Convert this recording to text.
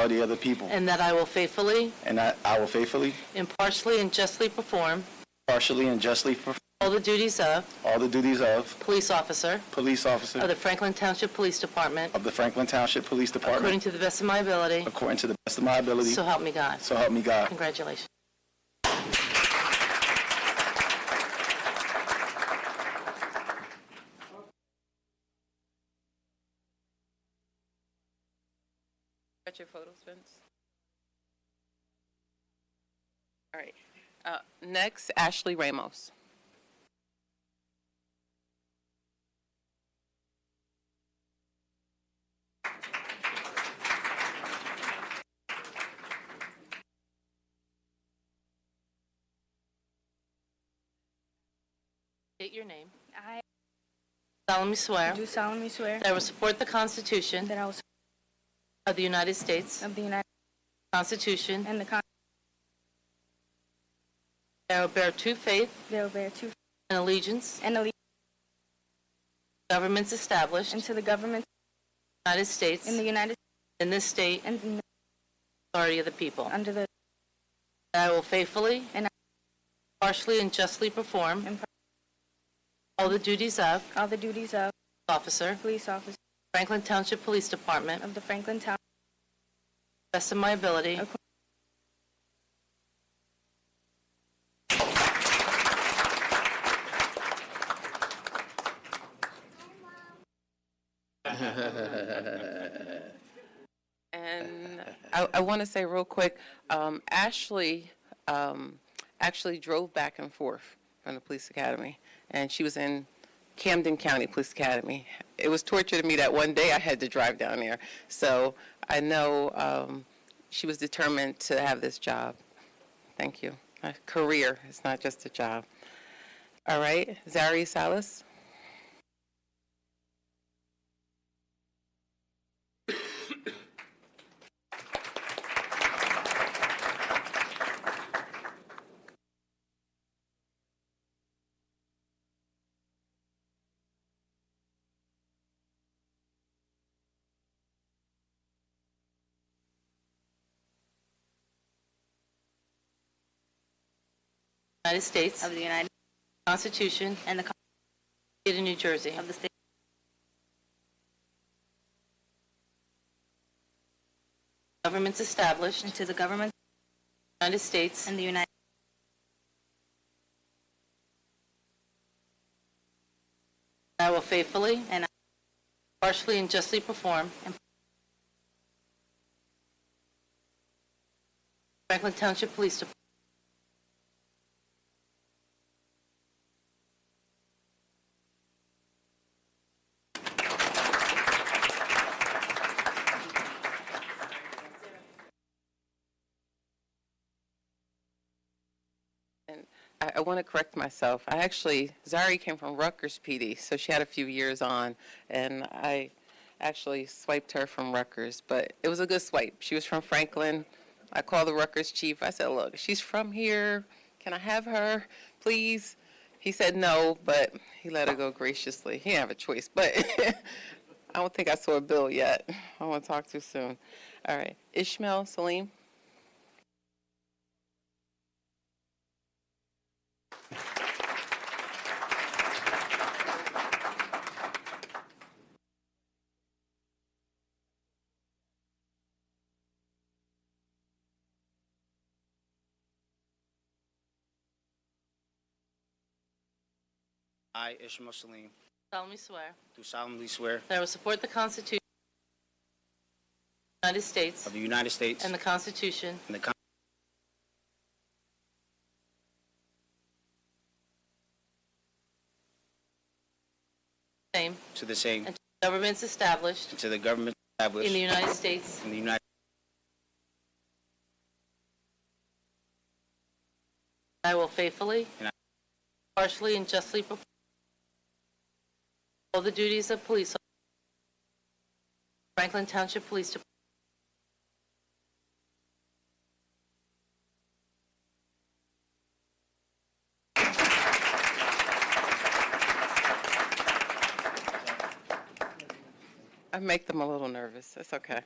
of the other people, and that I will faithfully, and that I will faithfully, impartially, and justly perform partially, and justly perform all the duties of all the duties of police officer police of officer the Franklin Township Police Department of the Franklin Township Police according Department to the best of my ability, according to the best of my ability, so help me God. so help me God. Congratulations. Got your photos, Vince? All right. Uh, Next, Ashley Ramos. State your name. I solemnly swear do solemnly swear that I will support the Constitution that I will support of the United States, of the United Constitution, and the Constitution that I will bear true faith thereof thereto, and allegiance and allegiance to governments established in to the government the United States, in the United in this state, States and in the- authority of the people. under the That I will faithfully And I- partially and justly perform And par- all the duties of all the duties of officer, police officer Franklin Township Police Department, to of the Franklin Town the best of my ability. Of course. And I, I want to say real quick, um, Ashley um, actually drove back and forth from the police academy, and she was in Camden County Police Academy. It was torture to me that one day I had to drive down there. So I know um, she was determined to have this job. Thank you. A career, it's not just a job. All right, Zari Salas. United States of the United Constitution, and the Constitution state of New Jersey. of the State Governments established in and to the government the United States, and the United I will faithfully And I- partially and justly perform And- Franklin Township Police Department And I, I want to correct myself. I actually, Zari came from Rutgers PD, so she had a few years on, and I actually swiped her from Rutgers, but it was a good swipe. She was from Franklin. I called the Rutgers chief. I said, Look, she's from here. Can I have her, please? He said no, but he let her go graciously. He didn't have a choice, but I don't think I saw a bill yet. I want to talk too soon. All right. Ishmael, Salim. I, Ishmael Salim, solemnly swear do solemnly swear that I will support the Constitution of the United States of the United States and and the Constitution the Con- same to the same, and governments established and to the in government the established United States in the United I will faithfully, And I- partially, and justly perform all the duties of police officer, Franklin Township Police Department, I make them a little nervous. That's okay.